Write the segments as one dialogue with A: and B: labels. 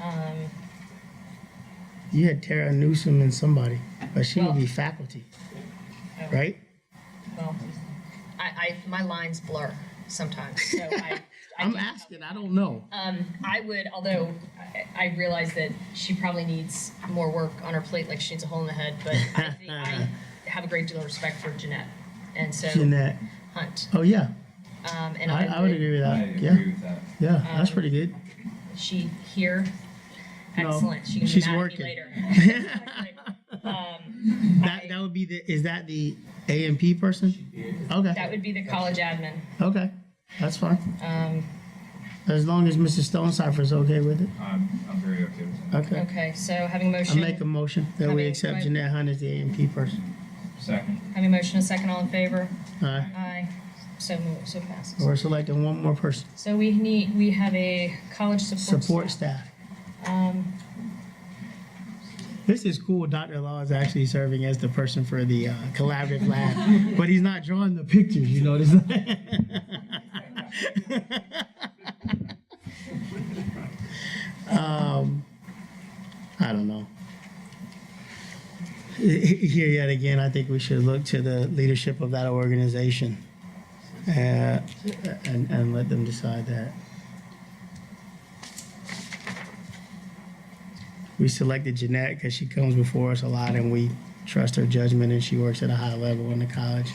A: Um,
B: You had Tara Newsom and somebody, but she would be faculty, right?
A: well, I, I, my lines blur sometimes, so I. I
B: I'm
A: can't-
B: asking, I don't know.
A: Um, I would, although I, I realize that she probably needs more work on her plate, like she needs a hole in the head, but I think I have a great deal of respect for Jeanette. And so
B: Jeanette,
A: Hunt,
B: oh yeah,
A: um, and
B: I, I would agree with
C: I
B: that,
C: agree
B: yeah,
C: with that.
B: yeah, that's pretty good.
A: She here,
B: No,
A: excellent, she can be
B: she's
A: mad at me
B: working.
A: later. Um,
B: That, that would be the, is that the AMP person?
A: That
B: Okay,
A: would be the college admin.
B: okay, that's fine.
A: Um,
B: As long as Mrs. Stonecipher's okay with it,
C: I'm, I'm very okay with that.
B: okay.
A: Okay, so having a
B: I
A: motion,
B: make a motion that
A: I
B: we
A: mean,
B: accept
A: my-
B: Jeanette Hunt as the AMP person.
C: Second.
A: having a motion, a second, all in favor?
B: Aye.
A: Aye, so moved, so passes.
B: We're selecting one more person,
A: So we need, we have a college support.
B: support
A: staff.
B: staff.
A: Um,
B: This is cool. Dr. Law is actually serving as the person for the uh, collaborative lab, but he's not drawing the pictures, you notice? um, I don't know. Here yet again, I think we should look to the leadership of that organization uh, and, and let them decide that. we selected Jeanette because she comes before us a lot and we trust her judgment and she works at a high level in the college.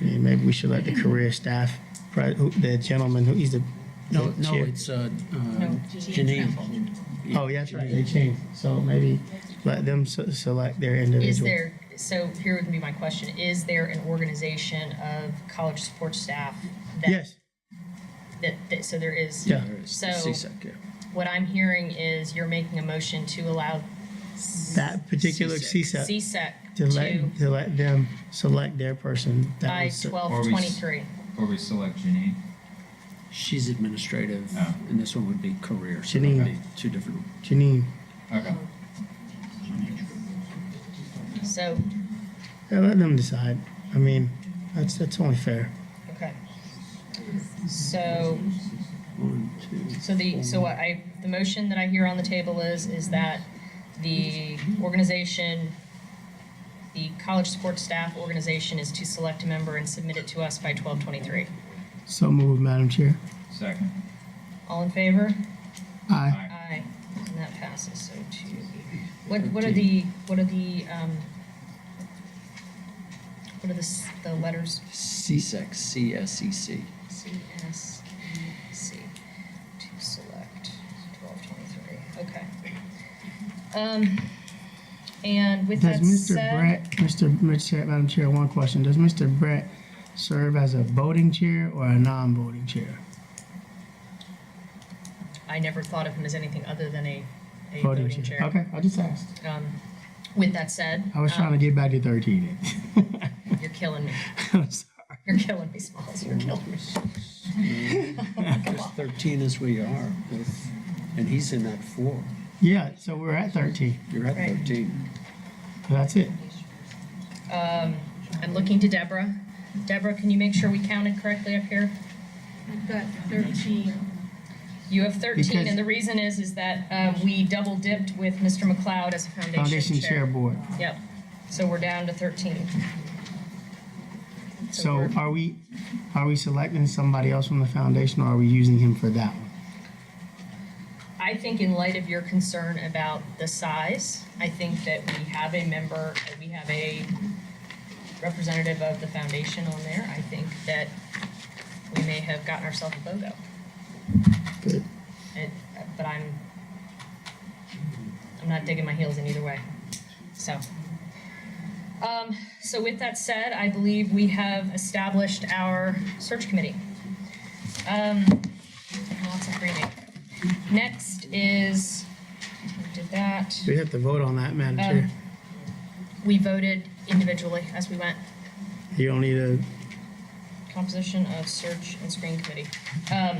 B: I mean, maybe we should let the career staff, pre- who- the gentleman who he's the.
D: No,
B: the
D: no,
B: chair-
D: it's uh, uh,
A: No, Janine.
D: Janine.
B: Oh, yeah, that's right. They changed. So maybe let them se- select their individual.
A: Is there, so here would be my question, is there an organization of college support staff? that-
B: Yes,
A: That, that, so there is.
B: yeah.
A: So-
D: CSEC, yeah.
A: What I'm hearing is you're making a motion to allow
B: That particular
D: CSEC.
B: CSEC
A: CSEC
B: to
A: to
B: let, to let them select their person. That
A: by
B: was-
A: twelve twenty-three.
C: Or we select Janine.
D: She's administrative,
C: Oh.
D: and this one would be career. So
B: Janine.
D: that'd be Two different.
B: Janine.
C: Okay.
A: So,
B: Yeah, let them decide. I mean, that's, that's only fair.
A: okay. So,
D: One, two.
A: so the, so what I, the motion that I hear on the table is, is that the organization, the college support staff organization is to select a member and submit it to us by twelve twenty-three.
B: So move, Madam Chair.
C: Second.
A: All in favor?
B: Aye.
C: Aye.
A: Aye, and that passes, so two. What, what are the, what are the, um, what are the, s- the letters?
D: CSEC, E C-S-E-C.
A: C, S, E, C, to select twelve twenty-three, okay. Um, and with
B: Does
A: that
B: Mr.
A: said,
B: Brett, Mr. Mr. Chair- Madam Chair, one question. Does Mr. Brett serve as a voting chair or a non-voting chair?
A: I never thought of him as anything other than a, a
B: Voting
A: voting chair.
B: Okay, I just asked.
A: Um, with that said.
B: I was trying to get back to thirteen.
A: to. You're killing me,
B: I'm sorry.
A: you're killing me, Smalls, you're killing me.
D: There's 13 as we are, with- and he's in that four.
B: Yeah, so we're at thirteen.
D: You're at
A: Right.
D: 13.
B: That's it.
A: Um, I'm looking to Deborah. Deborah, can you make sure we counted correctly up here?
E: I've got thirteen.
A: You have 13,
B: Because-
A: and the reason is, is that um, we double dipped with Mr. McLeod as a
B: Foundation
A: foundation
B: Chair
A: chair.
B: Board.
A: Yep, so we're down to 13. So
B: So
A: we're-
B: are we, are we selecting somebody else from the foundation or are we using him for that one?
A: I think in light of your concern about the size, I think that we have a member, that we have a representative of the foundation on there. I think that we may have gotten ourselves a BOGO.
B: Good.
A: It, but I'm, I'm not digging my heels in either way, so. Um, so with that said, I believe we have established our search committee. Um, lots of reading. Next is, we did that,
B: We have to vote on that, Madam
A: Um,
B: Chair.
A: we voted individually as we went,
B: You don't need a,
A: composition of search and screen committee. Um,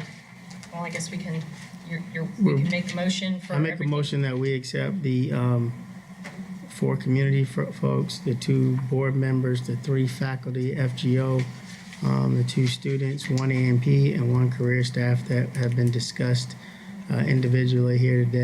A: well, I guess we can, you're, you're, we
B: Well,
A: can make the motion for
B: I make a
A: everything.
B: motion that we accept the um, four community fo- folks, the two board members, the three faculty, FGO, um, the two students, one AMP, and one career staff that have been discussed uh, individually here today.